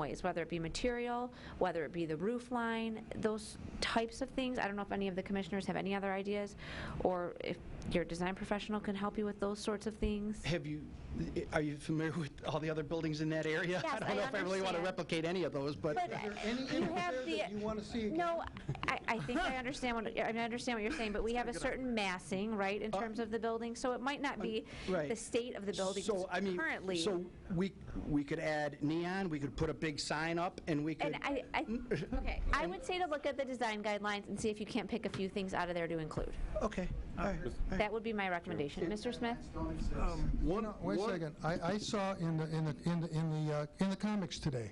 ways, whether it be material, whether it be the roof line, those types of things. I don't know if any of the commissioners have any other ideas, or if your design professional can help you with those sorts of things. Have you, are you familiar with all the other buildings in that area? Yes, I don't know if I really want to understand. replicate any of those, but But there any you images have there the- that you wanna see again? No, I, I think I understand what, I mean, I understand what you're saying, but we have a certain massing, right, in terms of the building, so it might not be Uh, right. the state of the buildings so, I mean, currently. so we, we could add neon, we could put a big sign up, and we could, And I, I, Mm. okay, I would say to look at the design guidelines and see if you can't pick a few things out of there to include. okay, all right. Um, That would be my recommendation. Mr. Smith? One, wait a one- second. I, I saw in the, in the, in the, in the, uh, in the comics today,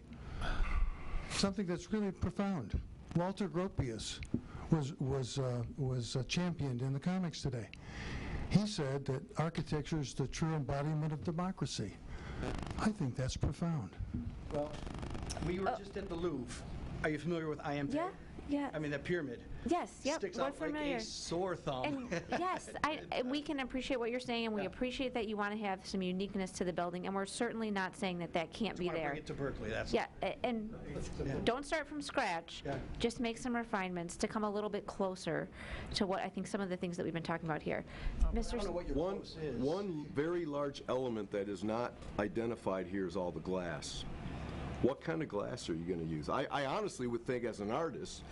something that's really profound. Walter Gropius was, was, uh, was uh, championed in the comics today. He said that architecture is the true embodiment of democracy. I think that's profound. Well, we were just at the Louvre. Are you familiar with IMD? Oh. Yeah, yeah. I mean, that pyramid. Yes, yep, Sticks we're out like familiar. a sore thumb. And yes, I, and we can appreciate what you're saying, and we appreciate that you want to have some uniqueness to the building, and we're certainly not saying that that can't be Want to there. bring it to Berkeley, that's. Yeah, a- and don't start from scratch. Yeah. Just make some refinements to come a little bit closer to what I think some of the things that we've been talking about here. Um, I Mr. don't S- know what your One, purpose is. one very large element that is not identified here is all the glass. What kind of glass are you going to use? I, I honestly would think, as an artist,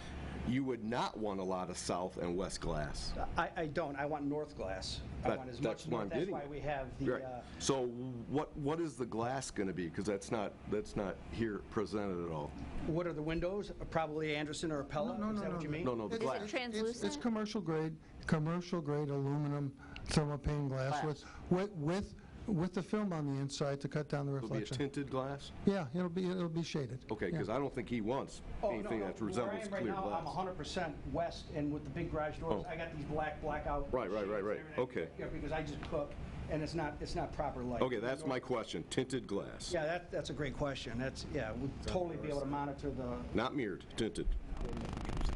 you would not want a lot of south and west glass. I, I don't, I want north glass. I That- want as that's much what I'm north, that's getting why at. we have the, Right. uh, So what, what is the glass going to be? Because that's not, that's not here presented at all. what are the windows? Probably Anderson or Appella? No, no, Is that no, what you no. mean? No, no, the It's- it's- glass. it's- It's Translucent? commercial grade, commercial grade aluminum thermopane glass with, with, with with the film on the inside to cut down the It'll be a reflection. tinted glass? Yeah, it'll be, it'll be shaded. Okay, because I don't think he wants Oh, no, anything no, that resembles Where I am clear right now, I'm glass. 100% west, and with the big garage doors, Oh. I got these black blackout. Right, right, right, shades and right. everything. Okay. Yeah, because I just cook, and it's not, it's not proper light. Okay, that's my question, tinted glass. Yeah, that, that's a great question. That's, yeah, we'd totally be able to monitor the, Not mirrored, tinted.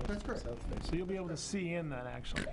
That's correct. So you'll be able to see in then, actually.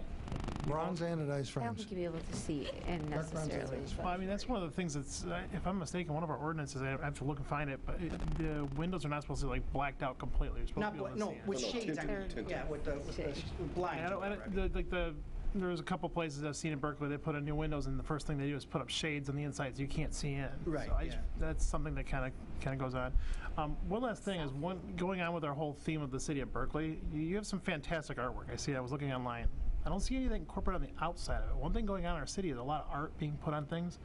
Bronze anodized I don't frames. think you'd be able to see in Dark bronze necessarily. anodized Well, I mean, that's one of the things that's, uh, if I'm mistaken, one of our ordinances, I have to look and find it, but it- the windows are not supposed to be like blacked out completely. You're supposed to not, bla- be able to no, see in. with shades, I mean, Tinted. yeah, with the, with the s- And blind. I don't, I don't- the- like the, there's a couple places I've seen in Berkeley, they put in new windows and the first thing they do is put up shades on the inside so you can't see in. Right, So I just- yeah. That's something that kind of, kind of goes on. Um, One last thing is one, going on with our whole theme of the city of Berkeley, you- you have some fantastic artwork. I see, I was looking online. I don't see anything corporate on the outside of it. One thing going on in our city is a lot of art being put on things.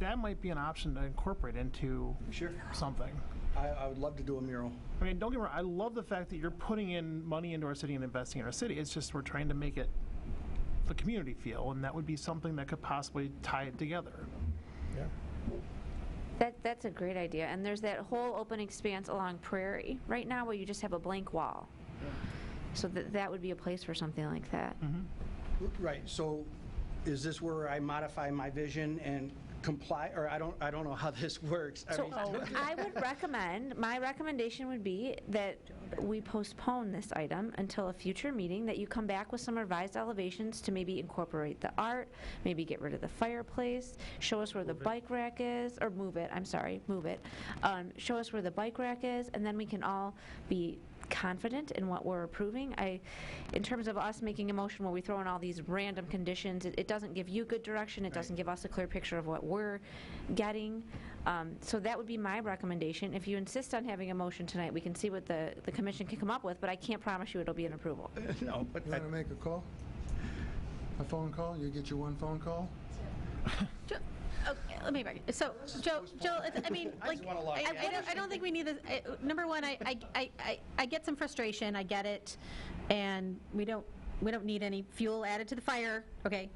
That might be an option to incorporate into Sure. something. I, I would love to do a mural. I mean, don't get me wrong. I love the fact that you're putting in money into our city and investing in our city. It's just we're trying to make it the community feel, and that would be something that could possibly tie it together. That, that's a great idea, and there's that whole open expanse along Prairie right now where you just have a blank wall. So that, that would be a place for something like that. Right, so is this where I modify my vision and comply, or I don't, I don't know how this works. I So mean, I would recommend, my recommendation would be that we postpone this item until a future meeting, that you come back with some revised elevations to maybe incorporate the art, maybe get rid of the fireplace, show us where the bike rack is, or move it, I'm sorry, move it. Um, Show us where the bike rack is, and then we can all be confident in what we're approving. I, in terms of us making a motion where we throw in all these random conditions, it, it doesn't give you good direction, it doesn't give us a clear picture of what we're getting. Um, so that would be my recommendation. If you insist on having a motion tonight, we can see what the, the commission can come up with, but I can't promise you it'll be an approval. No, but You I- want to make a call? A phone call? You get your one phone call? Jo- Okay, let me back. So, Joe, Joe, it's- I mean, I like, just want a lot of I- I don't, I don't think we need this. I- Number one, I, I, I- I, I get some frustration, I get it, and we don't, we don't need any fuel added to the fire, okay?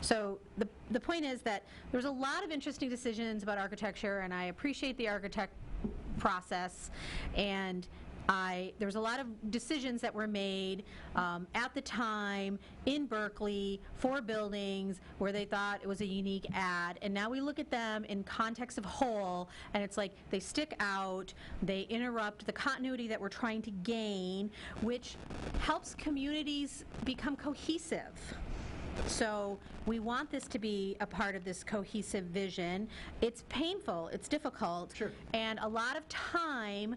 So the, the point is that there was a lot of interesting decisions about architecture, and I appreciate the architect process, and I, there was a lot of decisions that were made um, at the time in Berkeley for buildings where they thought it was a unique ad. And now we look at them in context of whole, and it's like they stick out, they interrupt the continuity that we're trying to gain, which helps communities become cohesive. So we want this to be a part of this cohesive vision. It's painful, it's difficult. Sure. And a lot of time